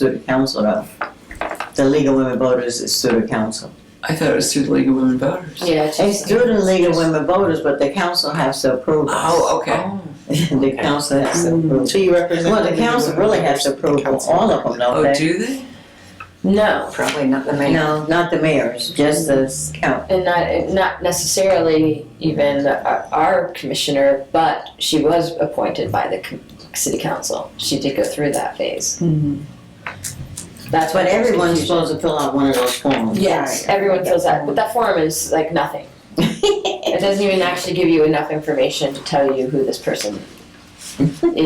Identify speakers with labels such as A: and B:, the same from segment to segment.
A: through the council though. The League of Women Voters is through the council.
B: I thought it was through the League of Women Voters.
C: Yeah,
A: It's through the League of Women Voters, but the council has to approve it.
B: Oh, okay.
A: The council has to approve.
D: So you represent.
A: Well, the council really has to approve on all of them, don't
B: Oh,
A: they?
B: do they?
C: No,
D: Probably not the main.
A: No, not the mayors, just the count.
C: and not and not necessarily even our, our commissioner, but she was appointed by the com- city council. She did go through that phase. That's
A: But
C: what
A: everyone's supposed to fill out one of those forms.
C: Yes, everyone feels that, but that form is like nothing. It doesn't even actually give you enough information to tell you who this person
D: But for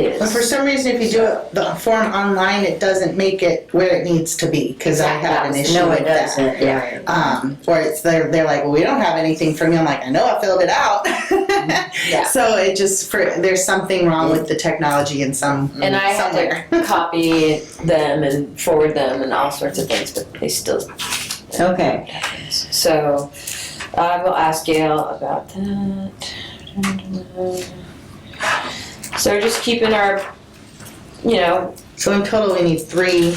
C: is.
D: some reason, if you do it, the form online, it doesn't make it where it needs to be, cause I had an issue
A: No, it
D: with that.
A: doesn't, yeah.
D: Um, or it's, they're, they're like, well, we don't have anything from you, I'm like, I know I filled it out.
C: Mm-hmm. Yeah.
D: So it just, for, there's something wrong with the technology in some,
C: And I
D: somewhere.
C: had to copy them and forward them and all sorts of things, but they still
A: Okay,
C: So I will ask Gail about that. So just keeping our, you know,
D: So in total, we need three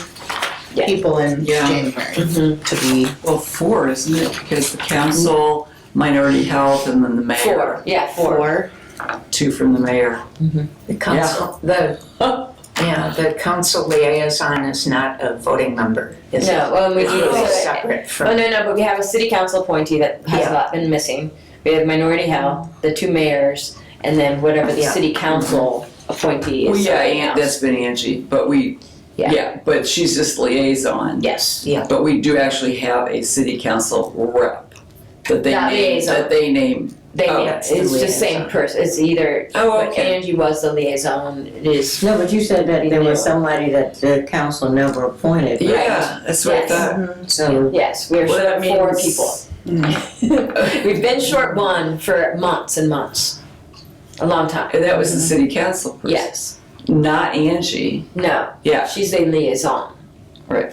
C: Yeah.
D: people in
B: Yeah.
D: January to be.
B: Well, four, isn't it? Because the council, minority health, and then the mayor.
C: four, yeah, four.
B: Two from the mayor.
E: The council, the, yeah, the council liaison is not a voting member,
C: No,
E: is it?
C: well, we do,
E: It's
C: oh
E: separate
C: no,
E: from,
C: no, but we have a city council appointee that has
E: Yeah.
C: not been missing. We have minority health, the two mayors, and then whatever the
E: Yeah.
C: city council appointee is.
B: Well, yeah,
C: something
B: An-
C: else.
B: that's been Angie, but we,
C: Yeah.
B: yeah, but she's just liaison.
C: Yes,
B: But we do actually have a city council rep that they
C: That
B: name,
C: liaison.
B: that they name.
C: they,
B: Oh,
C: it's
E: that's the
C: just the same
E: liaison.
C: person, it's either,
B: Oh, okay.
C: Angie was the liaison, it is,
A: no, but you said that there was somebody that the council never appointed. right?
B: Yeah, that's what I
C: Yes.
B: thought.
D: Um,
A: So,
C: yes, we're
B: Well, that
C: short four
B: means-
C: people. We've been short one for months and months. A long time.
B: And that was the city council person.
C: Yes.
B: Not Angie.
C: No.
B: Yeah.
C: She's a liaison.
B: Right.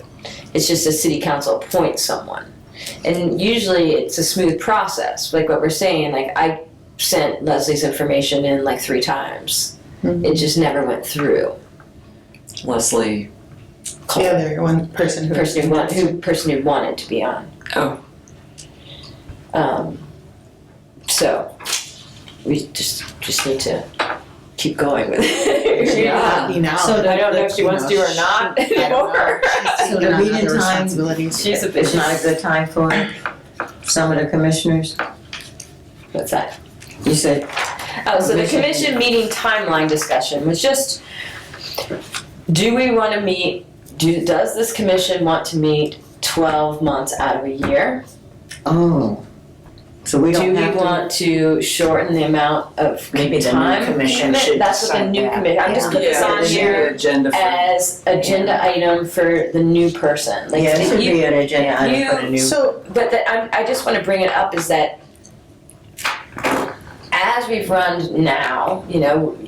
C: It's just the city council appoints someone. And usually it's a smooth process, like what we're saying, like I sent Leslie's information in like three times.
B: Hmm.
C: It just never went through.
B: Leslie.
D: The other one person who.
C: Person who want, who person who wanted to be on.
B: Oh.
C: Um, so we just just need to keep going with it.
B: Yeah.
D: You know.
A: So
C: I don't know if she wants to or not
D: I
A: So
C: anymore.
D: don't know. She's
A: the
D: taking on
A: reading
D: other
A: time-
D: responsibilities.
C: She's a
A: it's not a
C: bitch.
A: good time for some of the commissioners?
C: What's that?
A: You said,
C: Oh, so the
A: Commission.
C: commission meeting timeline discussion was just, do we wanna meet, do, does this commission want to meet twelve months out of a year?
A: oh, so we
C: Do
A: don't
C: we
A: have to.
C: want to shorten the amount of
E: Maybe the new
C: time?
E: commission
C: commitment?
E: should
C: That's what the
E: decide
C: new
E: that,
C: commission, I'm just
E: yeah.
C: putting this
B: Yeah,
C: on
B: the
C: here
B: agenda for-
C: as agenda item for the new person, like,
A: Yeah, it should
C: you-
A: be an agenda item for the new.
D: So,
C: But that I'm, I just want to bring it up is that as we've run now, you know,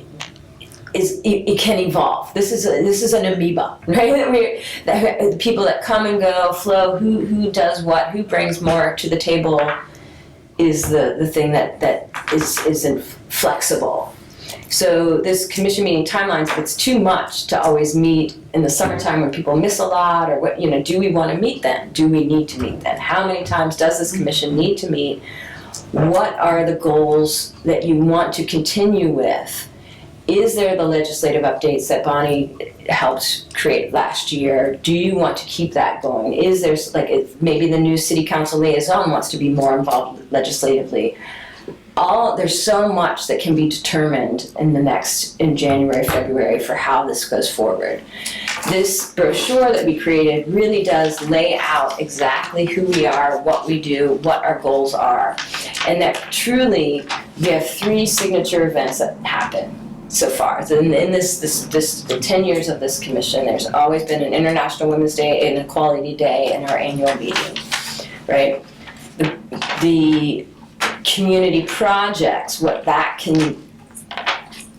C: is it, it can evolve. This is a, this is an amoeba, right? That we that the people that come and go, flow. Who who does what? Who brings more to the table? Is the the thing that that is isn't flexible. So this commission meeting timelines, it's too much to always meet in the summertime when people miss a lot or what, you know, do we want to meet then? Do we need to meet then? How many times does this commission need to meet? What are the goals that you want to continue with? Is there the legislative updates that Bonnie helped create last year? Do you want to keep that going? Is there, like, if maybe the new city council liaison wants to be more involved legislatively? all there's so much that can be determined in the next in January, February for how this goes forward. This brochure that we created really does lay out exactly who we are, what we do, what our goals are, and that truly we have three signature events that happen so far. So in, in this, this, this, the 10 years of this commission, there's always been an International Women's Day, an Equality Day, and our annual meeting, right? The, the community projects, what that can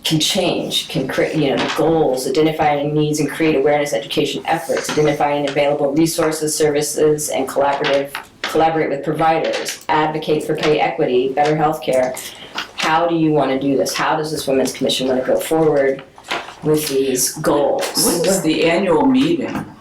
C: can change, can create, you know, goals, identifying needs and create awareness education efforts, identifying available resources, services, and collaborative collaborate with providers, advocate for pay equity, better healthcare. How do you want to do this? How does this women's commission want to go forward with these goals?
B: When is the annual meeting?